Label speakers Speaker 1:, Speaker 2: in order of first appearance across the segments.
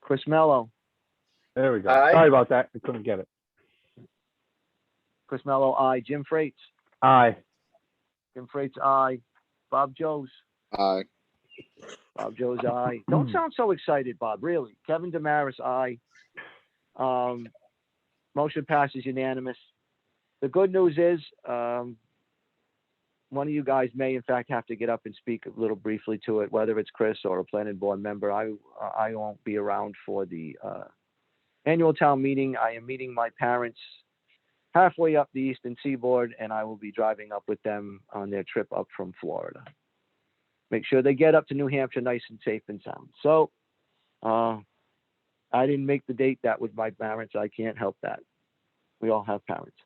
Speaker 1: Chris Mello,
Speaker 2: There we go.
Speaker 3: Aye.
Speaker 2: Sorry about that. I couldn't get it.
Speaker 1: Chris Mello, aye. Jim Freites,
Speaker 2: Aye.
Speaker 1: Jim Freites, aye. Bob Joes,
Speaker 3: Aye.
Speaker 1: Bob Joes, aye. Don't sound so excited, Bob, really. Kevin Damaris, aye. Um, motion passes unanimous. The good news is, um, one of you guys may in fact have to get up and speak a little briefly to it, whether it's Chris or a planning board member. I, I won't be around for the, uh, annual town meeting. I am meeting my parents halfway up the eastern seaboard and I will be driving up with them on their trip up from Florida make sure they get up to New Hampshire nice and safe and sound. So, uh, I didn't make the date. That was my parents. I can't help that. We all have parents.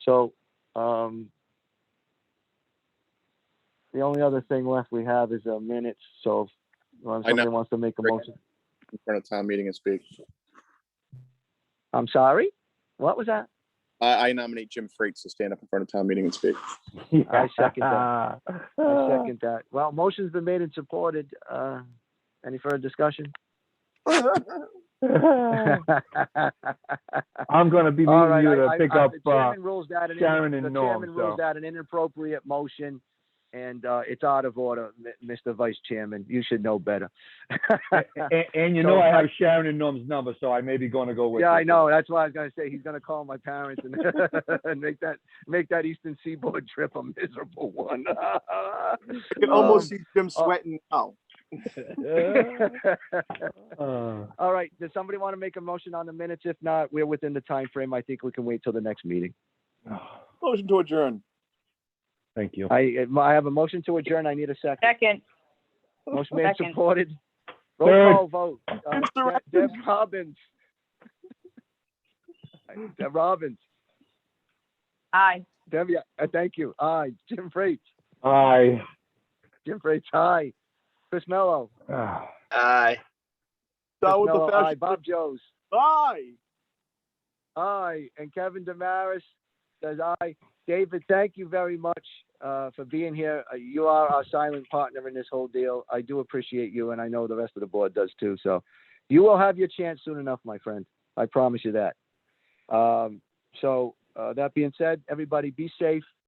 Speaker 1: So, um, the only other thing left we have is uh, minutes. So, if uh,
Speaker 3: I know.
Speaker 1: somebody wants to make a motion,
Speaker 3: In front of town meeting and speak.
Speaker 1: I'm sorry. What was that?
Speaker 3: I, I nominate Jim Freites to stand up in front of town meeting and speak.
Speaker 1: I second that. I
Speaker 2: Uh.
Speaker 1: second that. Well, motion's been made and supported. Uh, any further discussion?
Speaker 2: I'm gonna be
Speaker 1: All
Speaker 2: meeting
Speaker 1: right,
Speaker 2: you
Speaker 1: I-
Speaker 2: to
Speaker 1: I-
Speaker 2: pick
Speaker 1: I-
Speaker 2: up,
Speaker 1: the
Speaker 2: uh,
Speaker 1: chairman rules that an
Speaker 2: Sharon
Speaker 1: in-
Speaker 2: and
Speaker 1: the
Speaker 2: Norm,
Speaker 1: chairman rules
Speaker 2: so.
Speaker 1: out an inappropriate motion, and uh, it's out of order, M- Mr. Vice Chairman. You should know better.
Speaker 2: And, and you
Speaker 1: So
Speaker 2: know I
Speaker 1: I-
Speaker 2: have Sharon and Norm's number, so I may be gonna go with.
Speaker 1: yeah, I
Speaker 2: you.
Speaker 1: know. That's why I was going to say he's going to call my parents and, and make that make that Eastern Seaboard trip a miserable one.
Speaker 4: You can almost
Speaker 3: Um,
Speaker 4: see Jim sweating now.
Speaker 2: Uh,
Speaker 1: All right. Does somebody want to make a motion on the minutes? If not, we're within the time frame. I think we can wait till the next meeting.
Speaker 3: Motion to adjourn.
Speaker 2: Thank you.
Speaker 1: I I have a motion to adjourn. I need a second.
Speaker 5: Second,
Speaker 1: Motion made and
Speaker 5: Second.
Speaker 1: supported.
Speaker 2: Third.
Speaker 1: Roll call vote. Uh, Deb- Deb Robbins. Deb Robbins.
Speaker 5: aye.
Speaker 1: Debbie, uh, thank you. Aye. Jim Freites.
Speaker 2: Aye.
Speaker 1: Jim Freites, aye. Chris Mello.
Speaker 2: Ah.
Speaker 4: Aye.
Speaker 1: Chris
Speaker 4: That was
Speaker 1: Mello,
Speaker 4: the
Speaker 1: aye.
Speaker 4: fashion.
Speaker 1: Bob Joes.
Speaker 4: Bye.
Speaker 1: Aye. And Kevin Damaris says aye. David, thank you very much uh, for being here. Uh, you are our silent partner in this whole deal. I do appreciate you, and I know the rest of the board does too. So you will have your chance soon enough, my friend. I promise you that. Um, so, uh, that being said, everybody be safe.